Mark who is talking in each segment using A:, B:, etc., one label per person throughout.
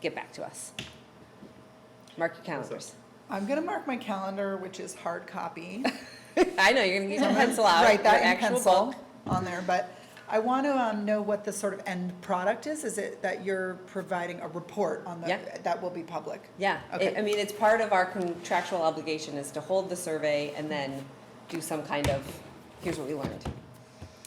A: get back to us. Mark your calendars.
B: I'm gonna mark my calendar, which is hard copy.
A: I know, you're gonna use a pencil out,
B: Write
A: your
B: that in
A: actual
B: pencil
A: book.
B: on there, but I want to um, know what the sort of end product is. Is it that you're providing a report on the,
A: Yeah.
B: that will be public?
A: Yeah, it-
B: Okay.
A: I mean, it's part of our contractual obligation is to hold the survey and then do some kind of, here's what we learned.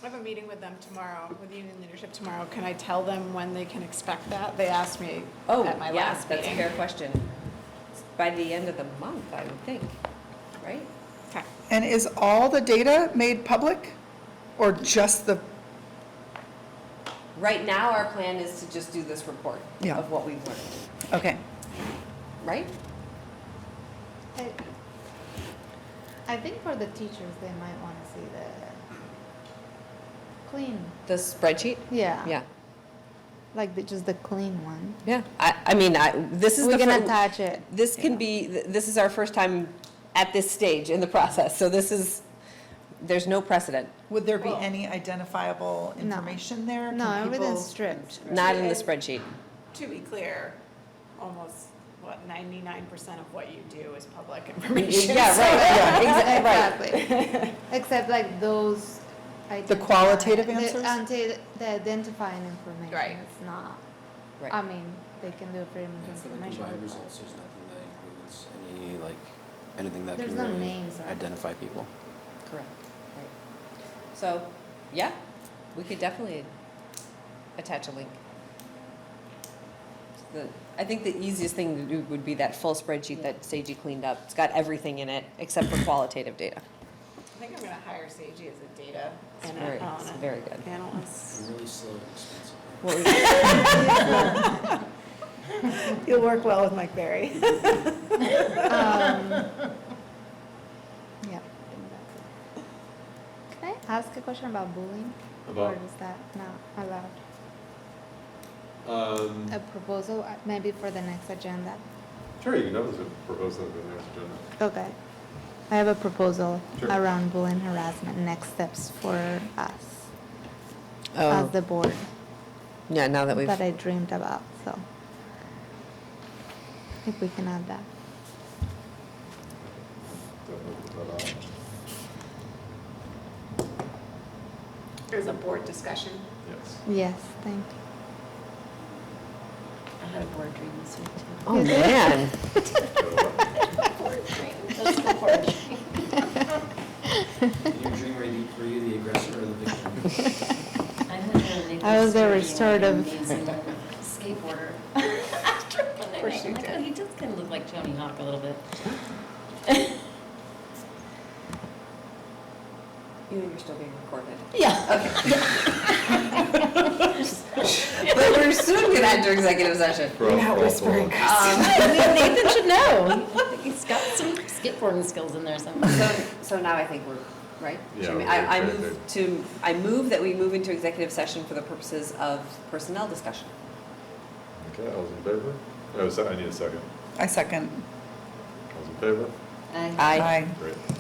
C: I have a meeting with them tomorrow, with union leadership tomorrow. Can I tell them when they can expect that? They asked me
A: Oh,
C: at my
A: yeah,
C: last
A: that's a fair
C: meeting.
A: question. By the end of the month, I would think, right?
C: Okay.
B: And is all the data made public or just the,
A: Right now, our plan is to just do this report
B: Yeah.
A: of what we've learned,
B: okay.
A: right?
D: I- I think for the teachers, they might want to see the clean.
A: The spreadsheet?
D: Yeah.
A: Yeah,
D: Like the, just the clean one.
A: yeah. I, I mean, I, this is the.
D: We're gonna
A: fir-
D: touch it.
A: This can be, th- this is our first time at this stage in the process, so this is, there's no precedent,
B: Would there be
C: Well-
B: any identifiable
D: No.
B: information there?
D: No,
B: Can
D: everything's
B: people-
D: stripped.
A: not in the spreadsheet.
C: To be clear, almost, what, ninety-nine percent of what you do is public information.
A: Yeah,
C: so-
A: right, yeah, exactly, right.
D: Exactly. Except like those. identify-
B: qualitative
D: the
B: answers?
D: identi- The identifying information.
C: Right.
D: It's not,
A: Right.
D: I mean, they can do pretty much
E: For the
D: information.
E: combined
D: but
E: results, there's nothing that includes any, like, anything that
D: There's
E: can
D: no
E: really
D: names, right?
E: identify people.
A: Correct, right. So, yeah, we could definitely attach a link. The, I think the easiest thing to do would be that full spreadsheet that Seiji cleaned up. It's got everything in it except for qualitative data.
C: I think I'm gonna hire Seiji as a data
A: It's
C: ana-
A: very, it's
C: ana-
A: very good.
C: analyst.
E: I'm really slow and expensive.
A: What was it?
C: You'll work well with Mike Berry.
D: Um, Yeah. I think that's it. Can I ask a question about bullying?
F: About-
D: Or is that not allowed?
F: Um,
D: A proposal, uh, maybe for the next agenda?
F: sure, you can always propose that in the next agenda.
D: Okay. I have a proposal
F: Sure.
D: around bullying harassment, next steps for us as
A: Oh,
D: Uh, the board
A: yeah, now that we've,
D: that I dreamed about, so. I think we can add that.
F: Don't look at that up.
C: There's a board discussion.
F: Yes.
D: Yes, thank you.
C: I had a board dream this week.
A: oh, man.
E: In your dream, are you, were you the aggressor or the victim?
D: I was a restorative-
G: Skateboarder. Of
C: course you did.
G: He does kind of look like Tony Hawk a little bit.
A: You and you're still being recorded.
G: Yeah.
A: But we're soon gonna enter executive session.
F: You're not whispering.
A: Um,
G: Nathan should know. He's got some skateboarding skills in there somewhere.
A: So, so now I think we're, right?
F: Yeah,
A: Should we-
F: we're
A: I, I
F: good,
A: move to, I move that we move into executive session for the purposes of personnel discussion.
F: Okay, all those in favor? Oh, se- I need a second.
B: I second.
F: All those in favor?
G: I-
A: Aye.
B: Aye.
F: Great.